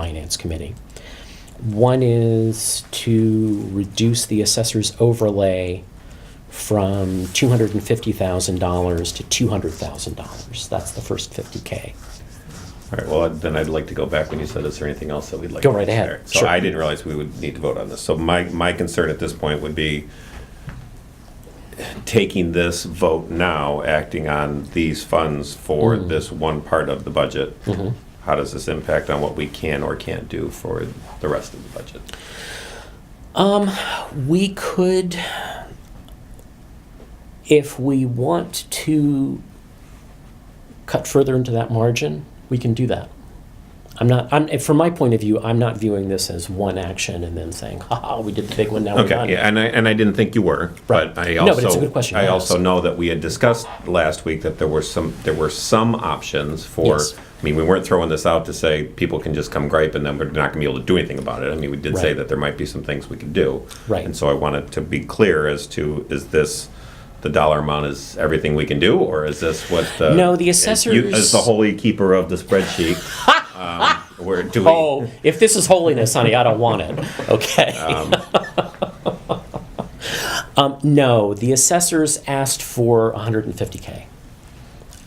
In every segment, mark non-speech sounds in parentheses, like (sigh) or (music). Finance Committee. One is to reduce the assessor's overlay from $250,000 to $200,000. That's the first 50K. All right, well, then I'd like to go back when you said, is there anything else that we'd like? Go to right ahead, consider?" So sure. I didn't realize we would need to vote on this. So my, my concern at this point would be taking this vote now, acting on these funds for Mm-hmm. this one part of the budget. How does this impact on what we can or can't do for the rest of the budget? We could, if we want to cut further into that margin, we can do that. I'm not, I'm, from my point of view, I'm not viewing this as one action and then saying, ha ha, we did the big one, now we're done. Okay, yeah, and I, and I didn't think you were, but I No, but also. it's a good question. I Yes. also know that we had discussed last week that there were some, there were some options for, Yes. I mean, we weren't throwing this out to say people can just come gripe and then we're not gonna be able to do anything about it. I mean, we did say Right. that there might be some things we could do. Right. And so I wanted to be clear as to, is this, the dollar amount is everything we can do, or is this what the? No, the as you- As assessors- the holy keeper of (laughs) the spreadsheet, um, where do we? Oh, if this is holiness, honey, I don't want it. Okay. (laughs) Um, no, the assessors asked for 150K.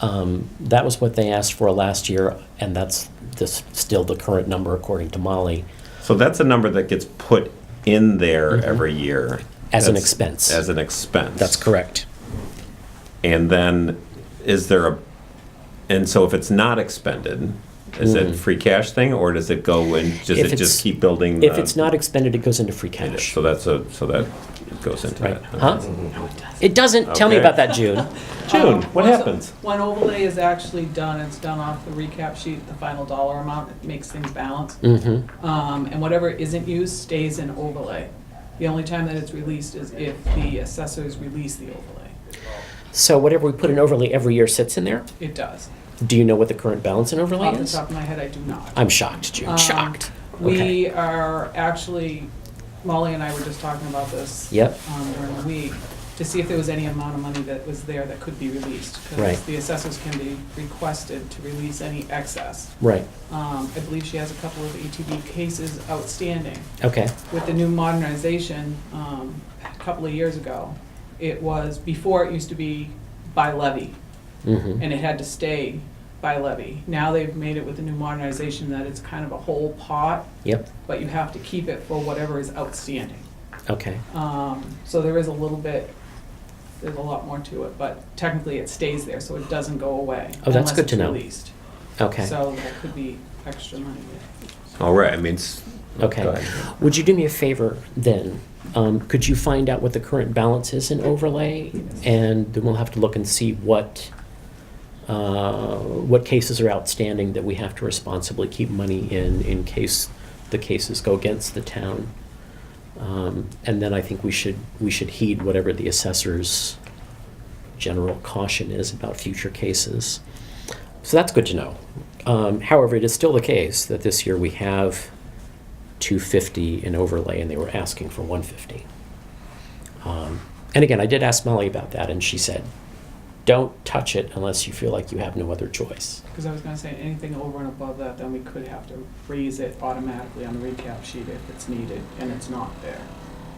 Um, that was what they asked for last year, and that's this, still the current number according to Molly. So that's a number that gets put in there every year. Mm-hmm. As an That's- expense. As an expense. That's correct. And then is there a, and so if it's not expended, is it free cash thing or does it go and, does Mm. If it it's- just keep building? If the- it's not expended, it goes into free It is. cash. So that's a, so that goes into Right. that. Huh? It doesn't. Tell me Okay. about that, June. June, what Once- happens? When overlay is actually done, it's done off the recap sheet, the final dollar amount, it makes things balance. Mm-hmm. Um, and whatever isn't used stays in overlay. The only time that it's released is if the assessors release the overlay. So whatever we put in overlay every year sits in there. It does. Do you know what the current balance in overlay Off the is? top of my head, I do not. I'm shocked, June. Um, shocked. Okay. We are actually, Molly and I were just talking about this. Yep. um, During the week, to see if there was any amount of money that was there that could be released. 'cause Right. the assessors can be requested to release any excess. Right. Um, I believe she has a couple of ETB cases outstanding. Okay. With the new modernization, um, a couple of years ago, it was, before it used to be by levy, Mm-hmm. and it had to stay by levy. Now they've made it with the new modernization that it's kind of a whole pot, Yep. but you have to keep it for whatever is outstanding. Okay. Um, so there is a little bit, there's a lot more to it, but technically it stays there, so it doesn't go away. Oh, that's good to know. Unless it's Okay. released. So that could be extra money there. All right, I mean, it's. go okay. ahead. Would you do me a favor then? Um, could you find out what the current balance is in overlay, and then we'll have to look and see what uh, what cases are outstanding that we have to responsibly keep money in in case the cases go against the town. Um, and then I think we should we should heed whatever the assessor's general caution is about future cases. So that's good to know. Um, however, it is still the case that this year we have 250 in overlay and they were asking for 150. Um, and again, I did ask Molly about that and she said, don't touch it unless you feel like you have no other choice. Because I was gonna say, anything over and above that, then we could have to raise it automatically on the recap sheet if it's needed, and it's not there.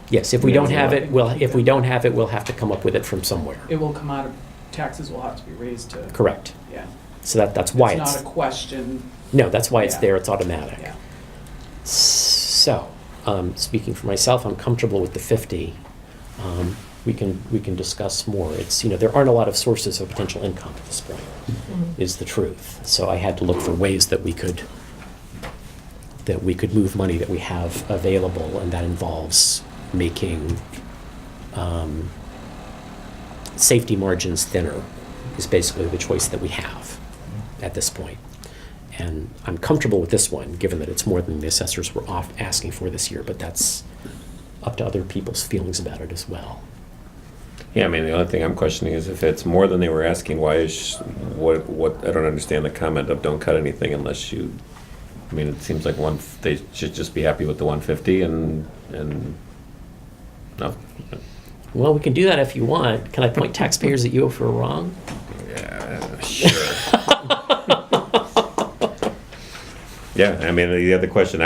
Yes, if we don't have it, we'll, if we Yeah. don't have it, we'll have to come up with it from somewhere. It will come out of, taxes will have to be raised to. Correct. Yeah. So that, that's why it's, It's not a question, no, that's why it's Yeah. there. It's automatic. yeah. So, um, speaking for myself, I'm comfortable with the 50. Um, we can we can discuss more. It's you know there aren't a lot of sources of potential income at this point, is the truth. So I had to look for ways that we could that we could move money that we have available, and that involves making um, safety margins thinner. Is basically the choice that we have at this point. And I'm comfortable with this one, given that it's more than the assessors were off asking for this year, but that's up to other people's feelings about it as well. Yeah, I mean, the only thing I'm questioning is if it's more than they were asking, why is, what, what, I don't understand the comment of don't cut anything unless you, I mean, it seems like one, they should just be happy with the one fifty and, and, no. Well, we can do that if you want. Can I point taxpayers at you if we're wrong? Yeah, sure. Yeah, I mean, the other question